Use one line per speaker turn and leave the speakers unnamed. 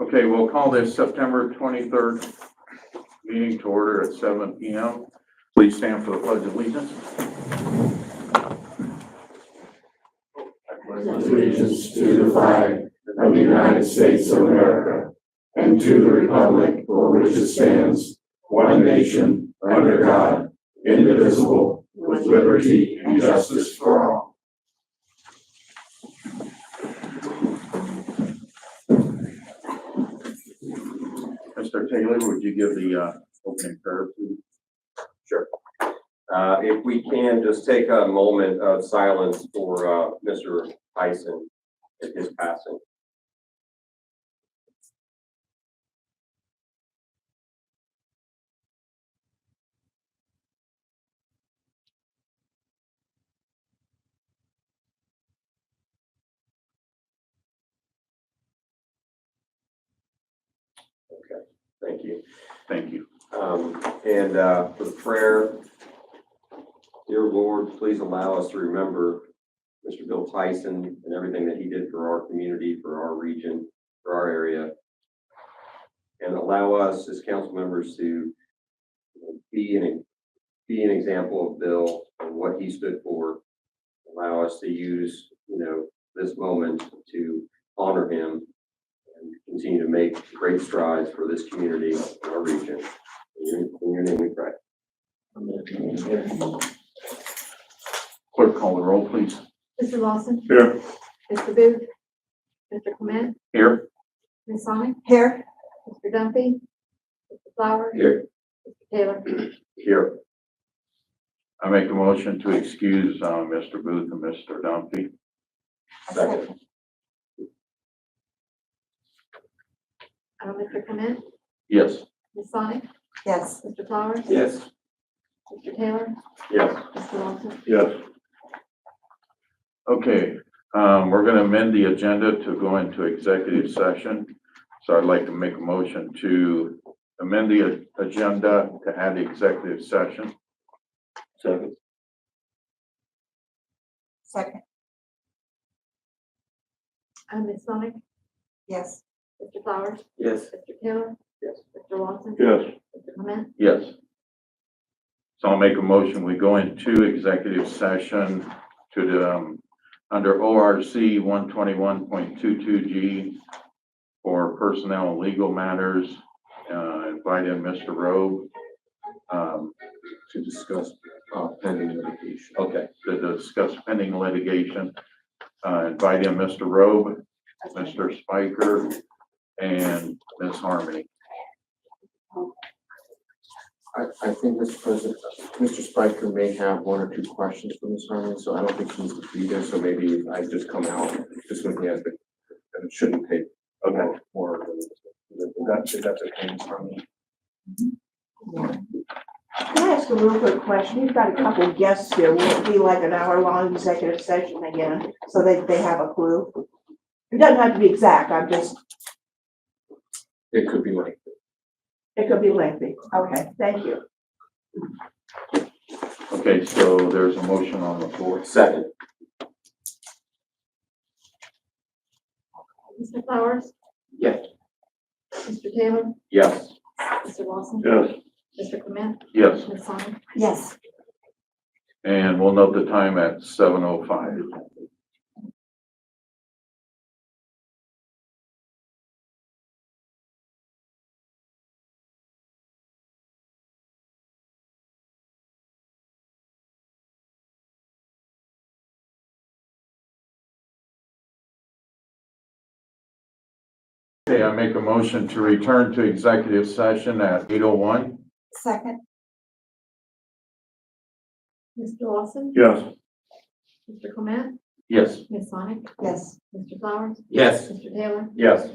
Okay, we'll call this September twenty-third meeting to order at seven P M. Please stand for the pledge of allegiance.
allegiance to the flag of the United States of America and to the republic for which it stands, one nation, under God, indivisible, with liberty and justice for all.
Mr. Taylor, would you give the, uh, opening prayer, please?
Uh, if we can, just take a moment of silence for, uh, Mr. Tyson in his passing. Okay, thank you.
Thank you.
Um, and, uh, for prayer, dear Lord, please allow us to remember Mr. Bill Tyson and everything that he did for our community, for our region, for our area. And allow us as council members to you know, be an, be an example of Bill and what he stood for. Allow us to use, you know, this moment to honor him and continue to make great strides for this community, and our region. In your- in your name we pray.
Clerk, call the roll, please.
Mr. Lawson,
Here.
Mr. Booth, Mr. Clement,
Here.
Ms. Sonic. Here. Mr. Dumpy, Mr. Flower.
Here.
Mr. Taylor.
Here.
I make a motion to excuse, uh, Mr. Booth and Mr. Dumpy.
Second.
Uh, Mr. Clement,
Yes.
Ms. Sonic,
Yes,
Mr. Flowers.
Yes.
Mr. Taylor,
Yes.
Mr. Lawson.
Yes. Okay, um, we're gonna amend the agenda to go into executive session. So I'd like to make a motion to amend the a- agenda to add the executive session.
Second.
second,
Uh, Ms. Sonic,
yes,
Mr. Flowers,
Yes.
Mr. Taylor.
Yes.
Mr. Lawson.
Yes.
Mr. Clement,
Yes. So I'll make a motion, we go into executive session to the, um, under ORC one twenty-one point two-two G for personnel and legal matters, uh, invite in Mr. Rowe, um,
to discuss uh, pending litigation.
Okay.
to discuss pending litigation. Uh, invite in Mr. Robe, Mr. Spiker, and Ms. Harmony.
I, I think, Mr. President, Mr. Spiker may have one or two questions for Ms. Harmon, so I don't think she needs to be there, so maybe I just come out, just when he has the, and it shouldn't take. Okay. More than, than- that, should that okay, Ms. Harmon?
Can I ask a real quick question? We've got a couple of guests here. Will it be like an hour-long executive session again, so that they have a clue? It doesn't have to be exact, I'm just,
It could be like,
it could be lengthy. Okay, thank you.
Okay, so there's a motion on the floor.
Second.
Mr. Flowers.
Yes.
Mr. Taylor,
Yes.
Mr. Lawson.
Yes.
Mr. Clement,
Yes.
Ms. Sonic,
yes.
And we'll note the time at seven oh five. Okay, I make a motion to return to executive session at eight oh one.
second,
Mr. Lawson.
Yes.
Mr. Clement,
Yes.
Ms. Sonic,
yes.
Mr. Flowers,
Yes.
Mr. Taylor,
Yes.